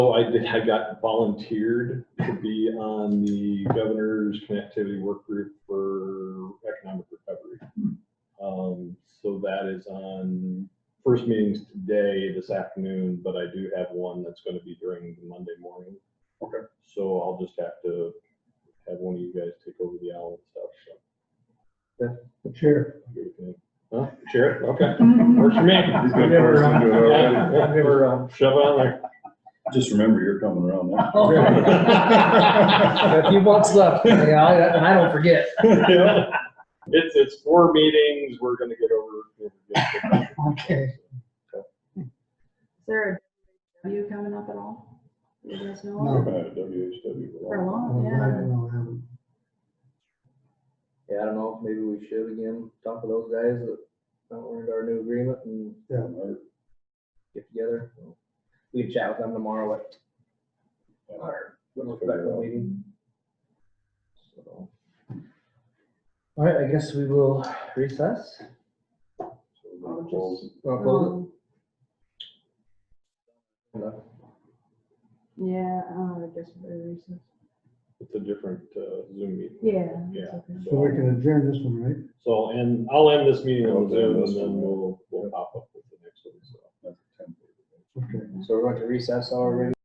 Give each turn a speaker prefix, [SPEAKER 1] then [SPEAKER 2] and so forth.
[SPEAKER 1] Oh, I did, I got volunteered to be on the governor's connectivity work group for economic recovery. Um, so that is on, first meeting's today, this afternoon, but I do have one that's gonna be during the Monday morning.
[SPEAKER 2] Okay.
[SPEAKER 1] So I'll just have to have one of you guys take over the owl and stuff, so.
[SPEAKER 3] Sure.
[SPEAKER 1] Give it to me. Huh, Sheriff, okay, works for me.
[SPEAKER 2] He's got person to do it already.
[SPEAKER 1] Yeah, Shove it on there.
[SPEAKER 2] Just remember, you're coming around
[SPEAKER 3] Got a
[SPEAKER 2] now.
[SPEAKER 3] few bucks left, you know, and I don't forget.
[SPEAKER 1] It's, it's four meetings, we're gonna get over.
[SPEAKER 3] Okay.
[SPEAKER 4] Is there a W coming up at all? You guys know?
[SPEAKER 3] No.
[SPEAKER 2] Uh, WHW.
[SPEAKER 4] For a long, yeah.
[SPEAKER 5] Yeah, I don't know, maybe we should again, talk to those guys that don't learn our new agreement and get together. We can chat with them tomorrow at our little special meeting. So, All right, I guess we will recess. Well, close
[SPEAKER 4] Um,
[SPEAKER 5] it. No.
[SPEAKER 4] Yeah, uh, I guess very recent.
[SPEAKER 1] It's a different uh, Zoom meeting.
[SPEAKER 4] Yeah.
[SPEAKER 1] Yeah.
[SPEAKER 4] that's okay.
[SPEAKER 3] So we can adjourn this one, right?
[SPEAKER 1] So, and I'll end this meeting on
[SPEAKER 2] Okay,
[SPEAKER 1] Zoom
[SPEAKER 2] that's
[SPEAKER 1] and then
[SPEAKER 2] fine.
[SPEAKER 1] we'll, we'll pop up with the next one, so.
[SPEAKER 2] That's a template.
[SPEAKER 3] Okay.
[SPEAKER 5] So we're going to recess already.